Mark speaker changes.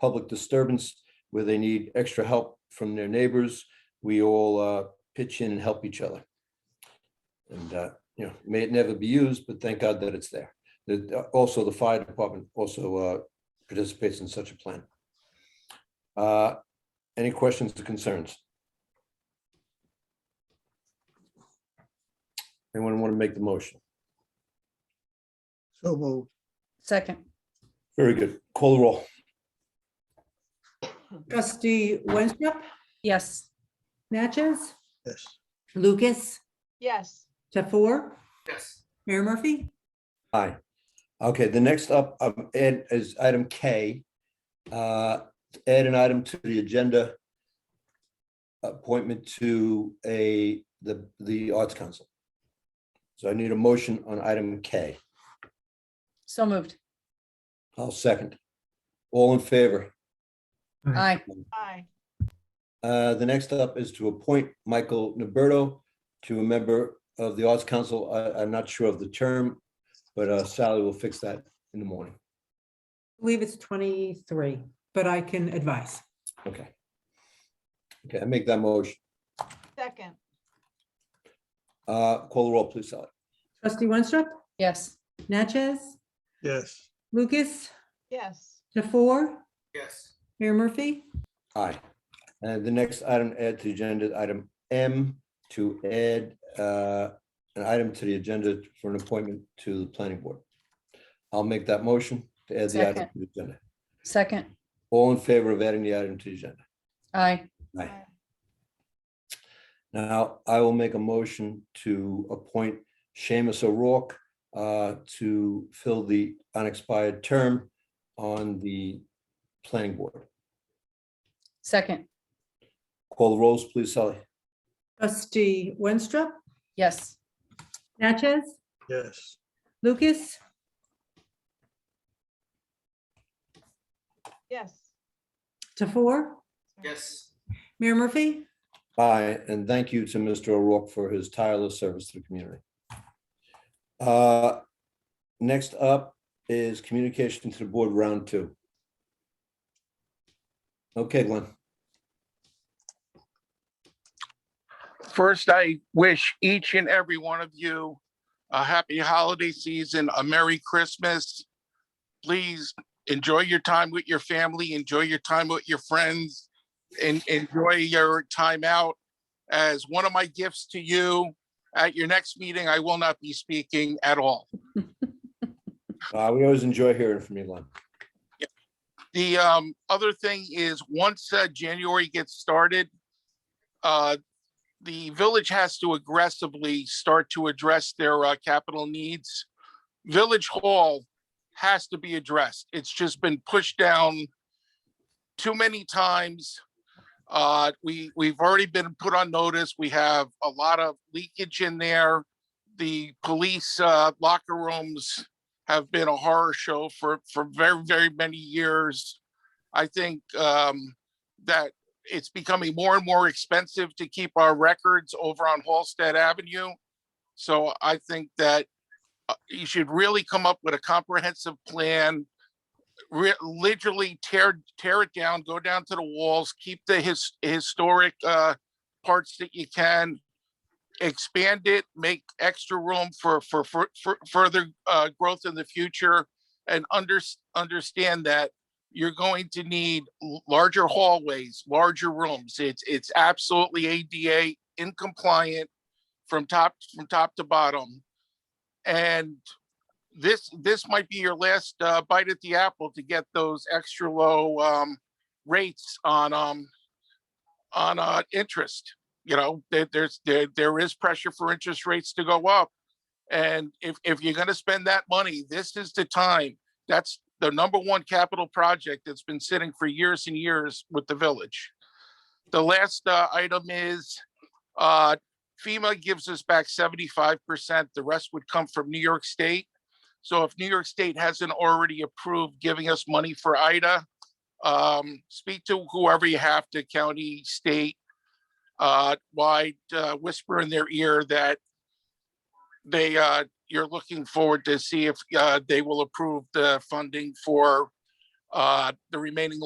Speaker 1: public disturbance where they need extra help from their neighbors, we all uh, pitch in and help each other. And, uh, you know, may it never be used, but thank God that it's there. That, uh, also, the fire department also uh, participates in such a plan. Uh, Any questions or concerns? Anyone want to make the motion?
Speaker 2: So moved.
Speaker 3: Second,
Speaker 1: Very good. Call the roll.
Speaker 4: Trustee Winstrup,
Speaker 3: yes.
Speaker 4: Natchez,
Speaker 2: Yes.
Speaker 4: Lucas,
Speaker 5: yes,
Speaker 4: Tafour,
Speaker 6: yes,
Speaker 4: Mayor Murphy?
Speaker 1: Aye. Okay, the next up, um, Ed, is item K. Uh, Add an item to the agenda. Appointment to a, the, the Arts Council. So I need a motion on item K.
Speaker 3: So moved.
Speaker 1: I'll second. All in favor?
Speaker 3: Aye.
Speaker 5: aye,
Speaker 1: Uh, The next up is to appoint Michael Roberto to a member of the Arts Council. I- I'm not sure of the term, but uh, Sally will fix that in the morning.
Speaker 4: I believe it's 23, but I can advise.
Speaker 1: Okay. Okay, I make that motion.
Speaker 5: second,
Speaker 1: Uh, Call the roll, please, Sally.
Speaker 4: Trustee Winstrup,
Speaker 3: Yes.
Speaker 4: Natchez,
Speaker 2: Yes.
Speaker 4: Lucas,
Speaker 5: yes,
Speaker 4: Tafour,
Speaker 6: yes,
Speaker 4: Mayor Murphy?
Speaker 1: Aye. And the next item to add to the agenda, is item M, to add uh, an item to the agenda for an appointment to the planning board. I'll make that motion to add the item to the agenda.
Speaker 3: Second,
Speaker 1: All in favor of adding the item to the agenda?
Speaker 3: aye.
Speaker 1: Aye.
Speaker 5: aye,
Speaker 1: Now, I will make a motion to appoint Seamus O'Rourke uh, to fill the unexpired term on the planning board.
Speaker 3: Second,
Speaker 1: Call the rolls, please, Sally.
Speaker 4: Trustee Winstrup,
Speaker 3: yes.
Speaker 4: Natchez,
Speaker 2: Yes.
Speaker 4: Lucas,
Speaker 5: yes,
Speaker 4: Tafour,
Speaker 6: yes,
Speaker 4: Mayor Murphy?
Speaker 1: Aye, and thank you to Mr. O'Rourke for his tireless service to the community. Uh, Next up is communication to the board, round two. Okay, Glenn.
Speaker 7: First, I wish each and every one of you a happy holiday season, a Merry Christmas. Please enjoy your time with your family, enjoy your time with your friends, and enjoy your time out. As one of my gifts to you, at your next meeting, I will not be speaking at all.
Speaker 1: Uh, We always enjoy hearing from you, Glenn.
Speaker 7: The um, other thing is, once uh, January gets started, uh, the village has to aggressively start to address their uh, capital needs. Village Hall has to be addressed. It's just been pushed down too many times. Uh, we, we've already been put on notice. We have a lot of leakage in there. The police uh, locker rooms have been a horror show for for very very many years. I think um, that it's becoming more and more expensive to keep our records over on Halsted Avenue. So I think that uh, you should really come up with a comprehensive plan. re- Literally tear tear it down, go down to the walls, keep the his historic uh, parts that you can expand it, make extra room for, for, for, for further, uh, growth in the future. And under, understand that you're going to need l- larger hallways, larger rooms. It's, it's absolutely ADA in compliant from top, from top to bottom. And this, this might be your last, uh, bite at the apple to get those extra low, um, rates on, um, on, uh, interest you know, there, there's, there, there is pressure for interest rates to go up. And if, if you're gonna spend that money, this is the time. That's the number one capital project that's been sitting for years and years with the village. The last, uh, item is, uh, FEMA gives us back seventy-five percent. The rest would come from New York State. So if New York State hasn't already approved giving us money for Ida, um, speak to whoever you have to, county, state, uh, wide uh, whisper in their ear that they, uh, you're looking forward to see if, uh, they will approve the funding for, uh, the remaining